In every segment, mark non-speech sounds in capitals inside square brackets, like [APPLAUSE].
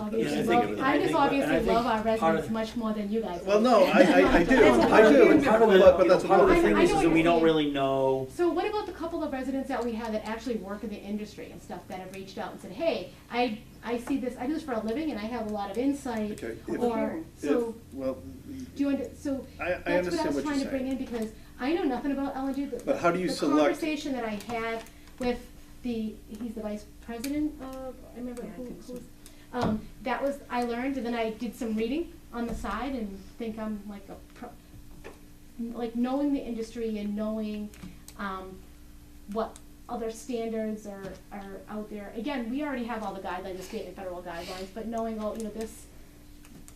obviously think love, it- I I just think- I obviously think love our part residents of- much more than you guys. Well, do. no, Oh, I, I, I do, [LAUGHS] I do, Part of the- but, but that's Part another of the I- thing. thing I is, know is what that you're we don't saying. really know, So what about the couple of residents that we have that actually work in the industry and stuff that have reached out and said, hey, I, I see this, I do this for a living and I have a lot of insight, Okay, if- or, so, If- Well, do you, under- so, I, I that's what I understand was what trying you're to bring saying. in, because I know nothing about LNG, the, But how do you the select- conversation that I had with the, he's the vice president of, I remember Yeah, I who, think who so. was, um, that was, I learned, and then I did some reading on the side and think I'm like a pro, like knowing the industry and knowing, um, what other standards are, are out there. Again, we already have all the guidelines, the state and federal guidelines, but knowing all, you know, this,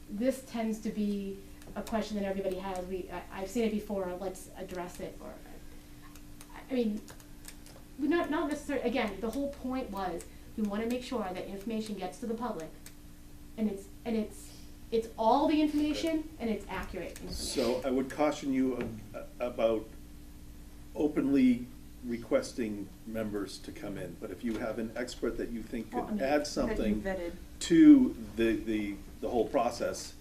this tends to be a question that everybody has. We, I, I've seen it before, let's address it, or, I- I mean, we're not, not necessarily, again, the whole point was, we wanna make sure that information gets to the public, and it's, and it's, it's all the information, and it's accurate information. So I would caution you ab- about openly requesting members to come in, but if you have an expert that you think Well, I could mean, add That you something vetted. to the, the, the whole process,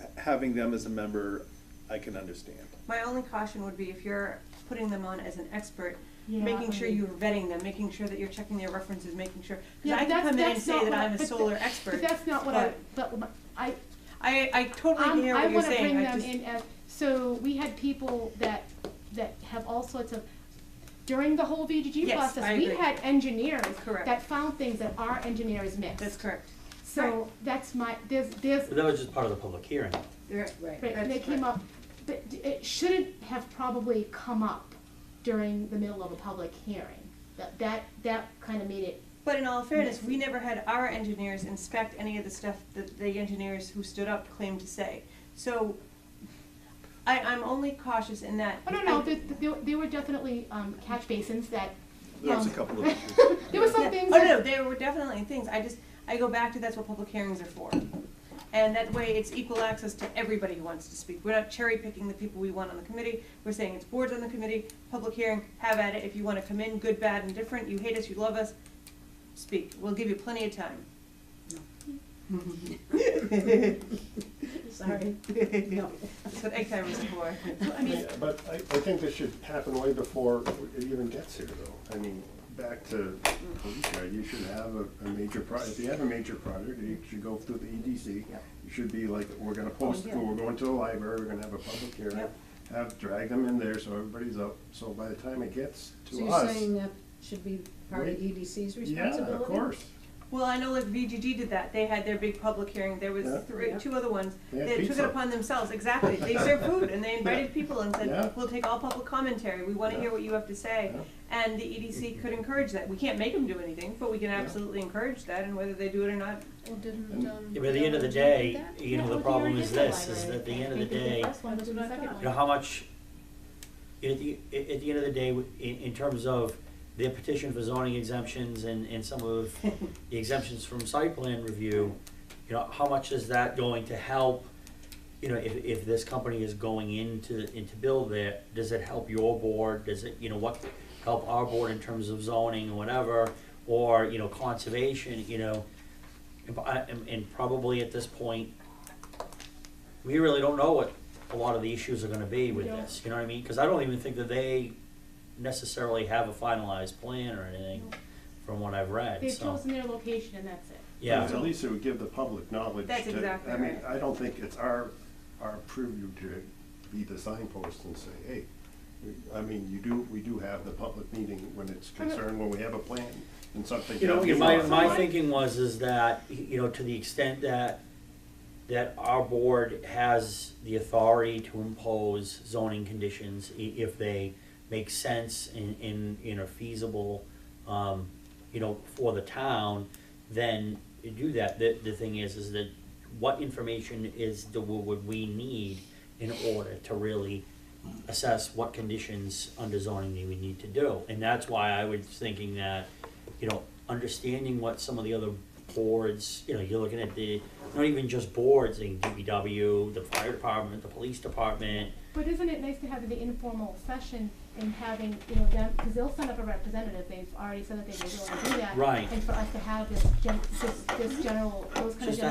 h- having them as a member, I can understand. My only caution would be if you're putting them on as an expert, Yeah, making I sure mean- you're vetting them, making sure that you're checking their references, making sure, Yeah, because I but can that's- come in and that's say not that what I- I'm a but solar th- expert. But that's not what I, but my- I, I, I totally I'm- hear Um, I what you're wanna saying, bring I them just, in as, so we had people that, that have all sorts of, during the whole VGG Yes, I process, we agree. had engineers Correct. that found things that our engineers missed. that's correct. So that's my, there's, there's, but that was just part of the public hearing. Right, right, and they came up, but d- it shouldn't have probably come up during the middle of a public hearing. That, that, that kind of made it, But in all fairness, Yes. we never had our engineers inspect any of the stuff that the engineers who stood up claimed to say. So, I, I'm only cautious in that. oh, no, I- no, there, there- there were definitely um, catch basins that, There was a Um, couple of [LAUGHS] issues. there were Yeah. some things Oh, that. no, there were definitely things, I just, I go back to that's what public hearings are for. And that way it's equal access to everybody who wants to speak, we're not cherry picking the people we want on the committee, we're saying it's boards on the committee, public hearing, have at it, if you wanna come in, good, bad, and different, you hate us, you love us, speak, we'll give you plenty of time. [LAUGHS] Sorry. No, [LAUGHS] that's what egg timers are for. I mean, Yeah, But I, I think this should happen way before it even gets here, though. I mean, back to, Felicia, you should have a, a major pro, if you have a major project, you should go through the EDC. You should be like, we're gonna post, Oh, yeah. we're going to the library, we're gonna have a public hearing, Yep. have, drag them in there so everybody's up. So by the time it gets So to you're us, saying that should be part of Wait. EDC's yeah, responsibility? of course. Well, I know like VGG did that. They had their big public hearing. There was Yeah. three, Yeah. two other ones. They had They took it pizza. upon themselves, exactly. They served food and they [LAUGHS] Yeah. invited people and Yeah. said, we'll take all public commentary. We wanna Yeah. hear what you have to say. Yeah. And the EDC could encourage that. We can't make them do anything, but we can Yeah. absolutely encourage that and whether they do it or not. Well, didn't, And- um. Yeah, but at the end of the Dylan do day, that? you know, the problem is this, is that at the end of the day, you know, how much, at the, at at the end of the day, in, in terms of their petition for zoning exemptions and, and some of the exemptions from site plan review, you know, how much is that going to help? You know, if, if this company is going into, into build there, does it help your board, does it, you know, what, help our board in terms of zoning or whatever? Or, you know, conservation, you know, and, b- I- and- and probably at this point, we really don't know what a lot of the issues are gonna be with We don't. this, you know what I mean? Cause I don't even think that they necessarily have a finalized plan or anything, from what I've read, They've so, chosen their location and that's it. yeah. At least it would give the public knowledge to. That's exactly I mean, right. I don't think it's our, our purview to be the signpost and say, hey, we- I mean, you do, we do have the public meeting when it's concerned, when we have a plan and something. You know, happens. my, my thinking was is that, you know, to the extent that, that our board has the authority to impose zoning conditions i- if they make sense and, and, and are feasible, um, you know, for the town, then you do that. The, the thing is, is that what information is, the would we need in order to really assess what conditions under zoning they would need to do. And that's why I was thinking that, you know, understanding what some of the other boards, you know, you're looking at the not even just boards, in DPW, the fire department, the police department. But isn't it nice to have the informal session and having, you know, them, because they'll send up a representative, they've already said that they really want to do that. Right. And for us to have this gen, this, this general, those kind of Just general